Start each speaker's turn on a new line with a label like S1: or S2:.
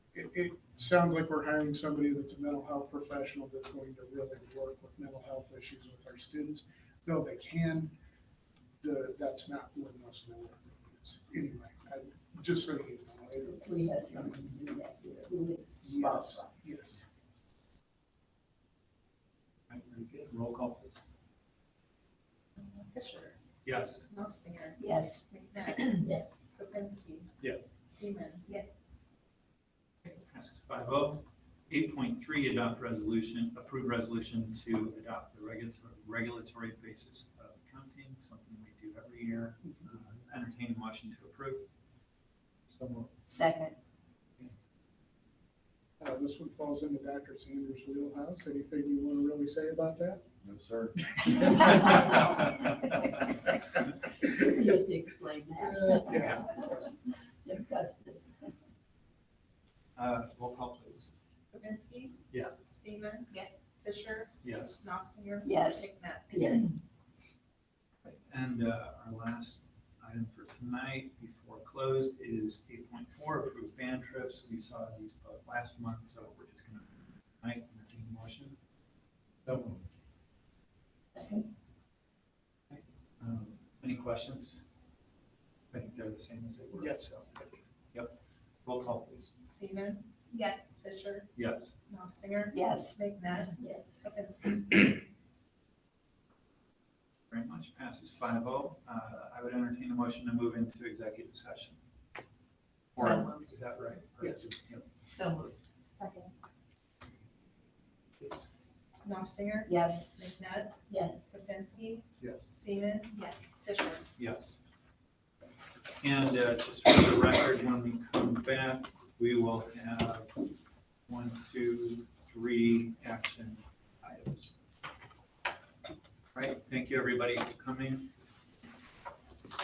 S1: it sounds like we're hiring somebody that's a mental health professional that's going to really work with mental health issues with our students. Though they can, the, that's not what most of the work is. Anyway, I, just so you know. it-
S2: We had someone do that here, who
S1: Yes, yes.
S3: Right, Very good. Roll call, please.
S4: Fisher,
S3: Yes.
S4: Knopfinger,
S2: yes,
S4: McNabb,
S2: yes,
S4: Kropinski,
S3: Yes.
S4: Seaman,
S2: yes,
S3: Passes five oh. Eight point three, adopt resolution, approve resolution to adopt the regulatory, regulatory basis of accounting, something we do every year. Uh, Entertain a motion to approve. So
S2: second,
S1: Uh, this one falls into Dr. Sanders' wheelhouse. Anything you want to really say about that?
S5: No, sir.
S2: you just explain
S3: Yeah.
S2: that. Your customs.
S3: Uh, roll call, please.
S4: Kropinski,
S3: Yes.
S4: Seaman,
S2: Yes.
S4: Fisher,
S3: Yes.
S4: Knopfinger,
S2: Yes,
S4: McNabb.
S2: yes,
S3: And uh, our last item for tonight before close is eight point four, approve fan trips. We saw these both last month, so we're just gonna, tonight, entertain a motion.
S5: No.
S2: second,
S3: Um, Any questions? I think they're the same as they were.
S1: Yes.
S3: so. Yep. Roll call, please.
S4: Seaman,
S6: Yes,
S4: Fisher,
S3: Yes.
S4: Knopfinger,
S2: yes,
S4: McNabb,
S2: yes.
S4: Kropinski.
S3: Very much. Passes five oh. I would entertain a motion to move into executive session. Or,
S2: So
S3: Is that right?
S1: Yes.
S3: Yep.
S2: So moved.
S4: Second.
S3: Yes.
S4: Knopfinger,
S2: Yes,
S4: McNabb,
S2: yes.
S4: Kropinski,
S3: Yes.
S4: Seaman, yes, Fisher.
S3: Yes. And uh, just for the record, when we come back, we will have one, two, three action items. All right, thank you, everybody, for coming.